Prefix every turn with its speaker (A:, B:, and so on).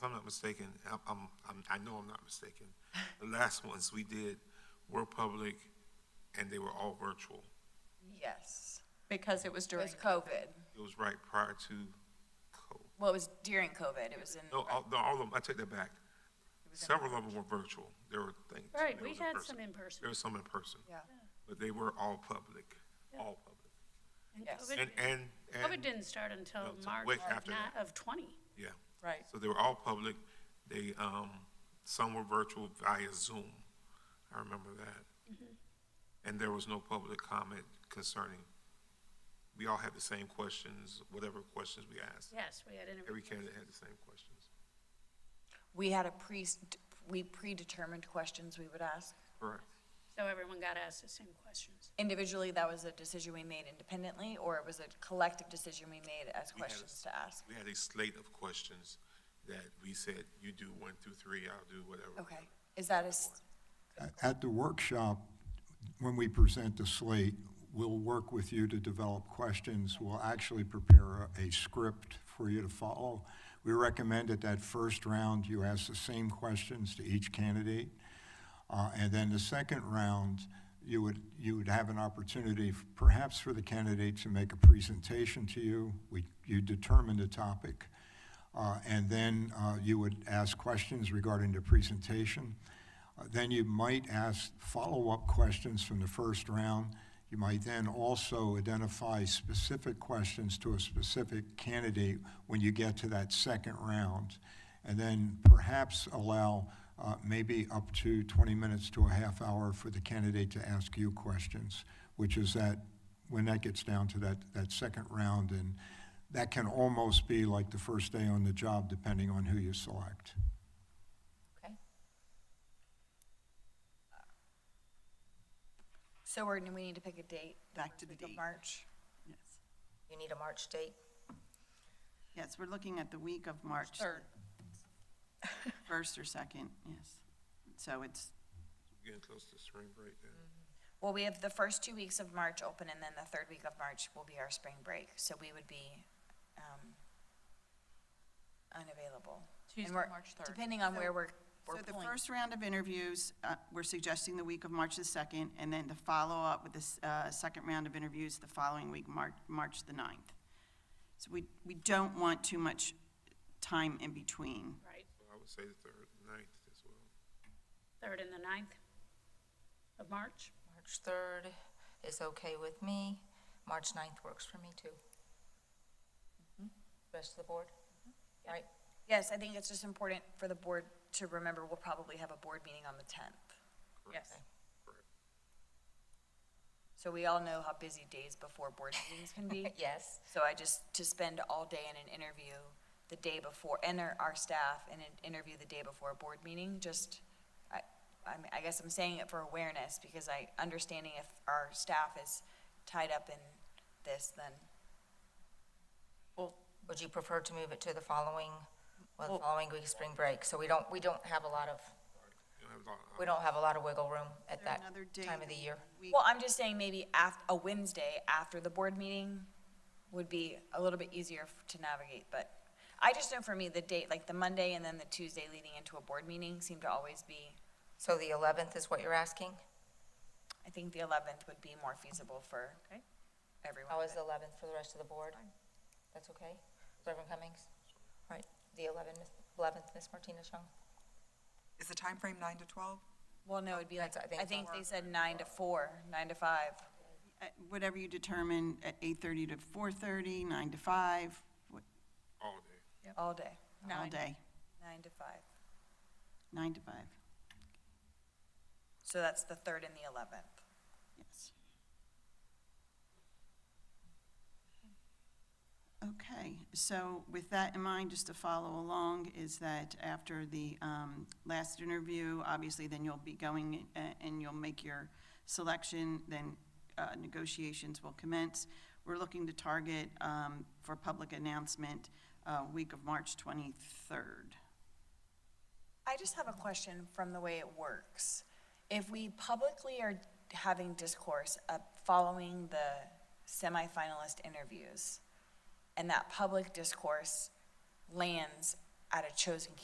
A: If I'm not mistaken, I- I'm, I'm, I know I'm not mistaken, the last ones we did were public and they were all virtual.
B: Yes,
C: because it was
B: during
C: during
B: COVID.
A: It was right prior to COVID.
B: Well, it was during COVID. It was in,
A: No, all, no, all of them, I take that back.
B: was in
A: Several of them were virtual. There were things.
D: Right,
A: there
D: we
A: was in
D: had
A: person.
D: some in person.
A: There was some in person,
B: yeah,
A: but they were all public, all public.
D: And
B: Yes.
D: COVID
A: And, and,
D: COVID
A: and,
D: didn't start until
A: No, it's
D: March
A: way
D: of
A: after
D: ni-
A: that.
D: of 20.
A: yeah.
C: Right.
A: So they were all public. They, um, some were virtual via Zoom. I remember that. And there was no public comment concerning, we all had the same questions, whatever questions we asked.
D: Yes, we had interviews.
A: Every candidate had the same questions.
B: we had a pre, we predetermined questions we would ask.
A: Correct.
D: So everyone got asked the same questions.
B: Individually, that was a decision we made independently, or it was a collective decision we made
A: We
B: as
A: had a-
B: questions to ask?
A: We had a slate of questions that we said, you do one through three, I'll do whatever.
B: Okay, is that a, s-
E: At the workshop, when we present the slate, we'll work with you to develop questions. We'll actually prepare a a script for you to follow. We recommend that that first round, you ask the same questions to each candidate. Uh, And then the second round, you would, you would have an opportunity f- perhaps for the candidate to make a presentation to you. We, you determine the topic. Uh, And then uh, you would ask questions regarding the presentation. Uh, Then you might ask follow-up questions from the first round. You might then also identify specific questions to a specific candidate when you get to that second round. And then perhaps allow uh, maybe up to 20 minutes to a half hour for the candidate to ask you questions, which is that, when that gets down to that, that second round, and that can almost be like the first day on the job, depending on who you select.
B: okay? So we're, we need to pick a date?
F: Back to the
B: Week of
F: date.
B: March?
F: Yes,
B: You need a March date?
F: yes, we're looking at the week of March.
C: Third.
F: First or second, yes. So it's,
A: Getting close to spring break then.
B: Well, we have the first two weeks of March open, and then the third week of March will be our spring break, so we would be, um, unavailable. And
C: Tuesday,
B: we're-
C: March 3rd.
B: Depending on where we're,
F: so
B: we're
F: the
B: pulling.
F: first round of interviews, uh, we're suggesting the week of March the second, and then to follow up with this, uh, second round of interviews the following week, March, March the ninth. So we, we don't want too much time in between.
D: Right,
A: So I would say the third, ninth as well.
D: 3rd and the 9th of March.
G: March 3rd is okay with me. March 9th works for me, too.
F: Mm-hmm.
G: Rest of the board? Right?
B: Yes, I think it's just important for the board to remember, we'll probably have a board meeting on the tenth.
C: Yes.
B: So we all know how busy days before board meetings can be.
G: Yes.
B: So I just, to spend all day in an interview the day before, enter our staff in an interview the day before a board meeting, just, I, I mean, I guess I'm saying it for awareness, because I, understanding if our staff is tied up in this, then,
C: Well,
G: Would you prefer to move it to the following, well, the
C: Well-
G: following week, spring break? So we don't, we don't have a lot of,
A: You know, I was all-
G: we don't have a lot of wiggle room at
F: Is there
G: that
F: another day
G: time of the
F: that
G: year.
F: we-
B: well, I'm just saying maybe af, a Wednesday after the board meeting would be a little bit easier f- to navigate, but I just know for me, the date, like the Monday and then the Tuesday leading into a board meeting seem to always be,
G: So the 11th is what you're asking?
B: I think the eleventh would be more feasible for everyone.
G: How is
B: but-
G: the 11th for the rest of the board? That's okay? Reverend Cummings? Right, the 11th, Miss- 11th, Miss Martinez Young?
H: Is the time frame nine to twelve?
B: Well, no, it'd be like,
G: That's- I think
B: I think
G: so.
B: they said nine to four, nine to five.
F: uh, Whatever you determine, at eight-thirty to four-thirty, nine to five, what-
A: All day.
B: All day,
F: all day,
B: nine to five.
F: nine to five,
B: So that's the third and the eleventh.
F: yes. Okay, so with that in mind, just to follow along, is that after the um, last interview, obviously, then you'll be going uh, and you'll make your selection, then uh, negotiations will commence. We're looking to target um, for public announcement, uh, week of March 23rd.
B: I just have a question from the way it works. If we publicly are having discourse uh, following the semifinalist interviews, and that public discourse lands at a chosen